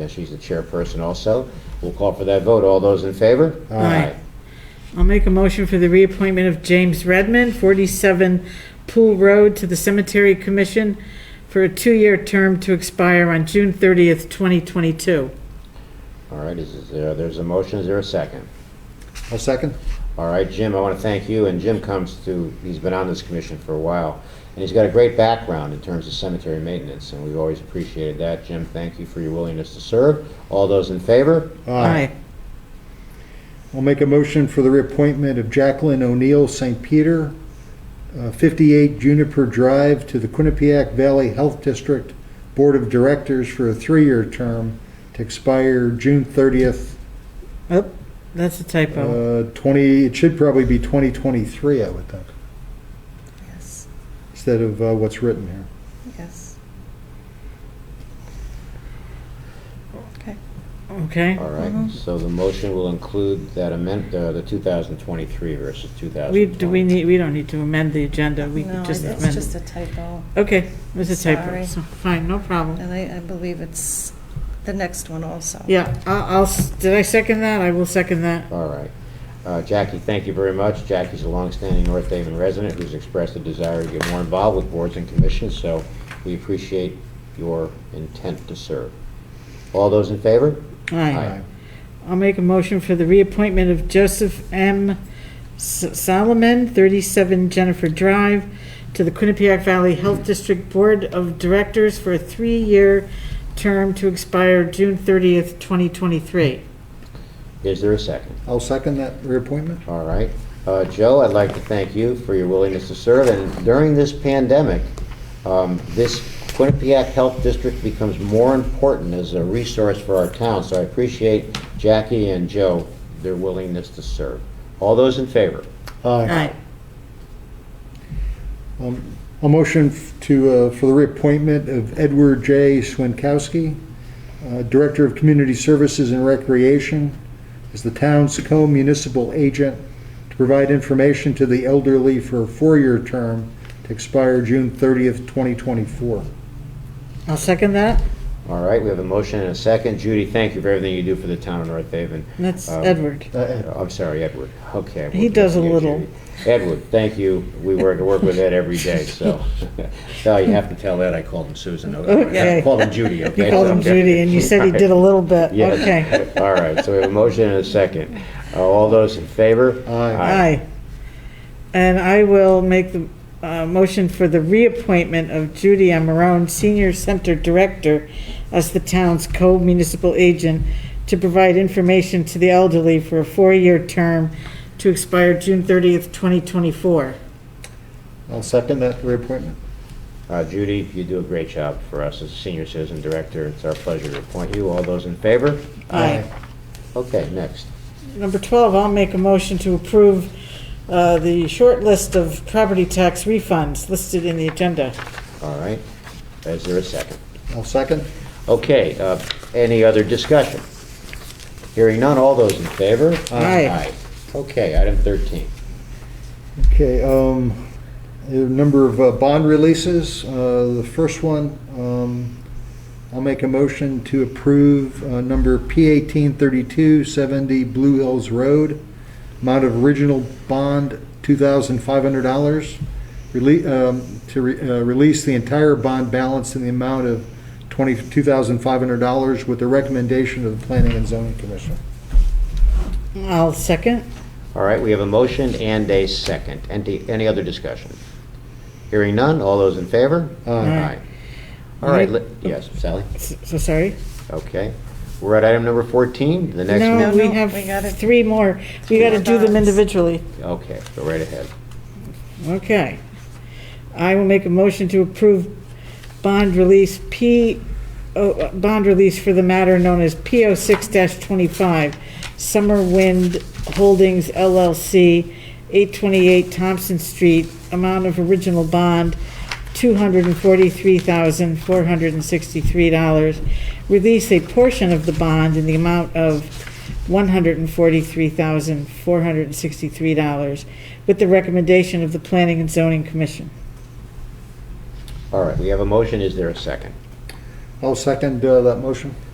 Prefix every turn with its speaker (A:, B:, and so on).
A: uh, she's the chairperson also. We'll call for that vote. All those in favor?
B: Aye. I'll make a motion for the reappointment of James Redmond, 47 Pool Road, to the Cemetery Commission for a two-year term to expire on June 30th, 2022.
A: All right, is, is there, there's a motion, is there a second?
C: I'll second.
A: All right, Jim, I want to thank you, and Jim comes to, he's been on this commission for a while, and he's got a great background in terms of cemetery maintenance, and we've always appreciated that. Jim, thank you for your willingness to serve. All those in favor?
C: I'll make a motion for the reappointment of Jacqueline O'Neill St. Peter, uh, 58 Juniper Drive, to the Quinnipiac Valley Health District Board of Directors for a three-year term to expire June 30th,
B: Oh, that's a typo.
C: uh, 20, it should probably be 2023, I would think,
D: Yes,
C: instead of uh, what's written here.
D: yes. Okay,
B: Okay?
A: All right, so the motion will include that amend, uh, the 2023 versus 2020.
B: We, do we need, we don't need to amend the agenda, we
D: no,
B: could
D: it's
B: just amend.
D: just
B: it.
D: a typo,
B: Okay, it was a typo,
D: Sorry.
B: so, fine, no problem.
D: and I, I believe it's the next one also.
B: Yeah, I'll, I'll s- did I second that? I will second that.
A: All right. Uh, Jackie, thank you very much. Jackie's a longstanding North Haven resident who's expressed a desire to get more involved with boards and commissions, so we appreciate your intent to serve. All those in favor?
B: Aye. I'll make a motion for the reappointment of Joseph M. S- Solomon, 37 Jennifer Drive, to the Quinnipiac Valley Health District Board of Directors for a three-year term to expire June 30th, 2023.
A: Is there a second?
C: I'll second that reappointment.
A: All right. Uh, Joe, I'd like to thank you for your willingness to serve, and during this pandemic, um, this Quinnipiac Health District becomes more important as a resource for our town, so I appreciate Jackie and Joe, their willingness to serve. All those in favor?
B: Aye.
C: Um, A motion f- to, uh, for the reappointment of Edward J. Swinkowski, uh, Director of Community Services and Recreation, as the town's co-municipal agent to provide information to the elderly for a four-year term to expire June 30th, 2024.
B: I'll second that.
A: All right, we have a motion and a second. Judy, thank you for everything you do for the town of North Haven.
B: That's
A: Um,
B: Edward.
C: Uh, Ed.
A: Uh, I'm sorry, Edward. Okay.
B: He
A: we'll
B: does a
A: continue,
B: little.
A: Judy. Edward, thank you. We work, work with Ed every day, so. No, you have to tell Ed I called him Susan.
B: Okay.
A: I called him Judy, okay?
B: You called him
A: Okay.
B: Judy, and you said he did a little bit.
A: Yes.
B: Okay.
A: All right, so we have a motion and a second. Uh, All those in favor?
C: Aye.
B: Aye. And I will make the uh, motion for the reappointment of Judy Amarone, Senior Center Director, as the town's co-municipal agent to provide information to the elderly for a four-year term to expire June 30th, 2024.
C: I'll second that reappointment.
A: Uh, Judy, you do a great job for us as senior citizen director. It's our pleasure to appoint you. All those in favor? Okay, next.
B: Number 12, I'll make a motion to approve uh, the short list of property tax refunds listed in the agenda.
A: All right. Is there a second?
C: I'll second.
A: Okay, uh, any other discussion? Hearing none, all those in favor?
B: Aye.
A: Okay, item 13.
C: Okay, um, there are a number of uh, bond releases. Uh, The first one, um, I'll make a motion to approve uh, number P eighteen thirty-two seventy Blue Hills Road, amount of original bond two thousand five hundred dollars, to re- uh, release the entire bond balance in the amount of twenty-two thousand five hundred dollars with the recommendation of the Planning and Zoning Commission.
B: I'll second.
A: All right, we have a motion and a second. Any, any other discussion? Hearing none, all those in favor?
B: Aye.
A: All right, let- yes, Sally?
B: S- So sorry?
A: Okay. We're at item number 14, the next
B: No,
A: one?
B: we
D: No, no, we gotta-
B: have three more. We
D: Three
B: gotta
D: more
B: do them
D: bonds.
B: individually.
A: Okay, go right ahead.
B: Okay. I will make a motion to approve bond release P, oh, uh, bond release for the matter known as oh PO 6-25, Summer Wind Holdings LLC, 828 Thompson Street, amount of original bond, $243,463. Release a portion of the bond in the amount of $143,463 with the recommendation of the Planning and Zoning Commission.
A: All right, we have a motion, is there a second?
C: I'll second uh, that motion.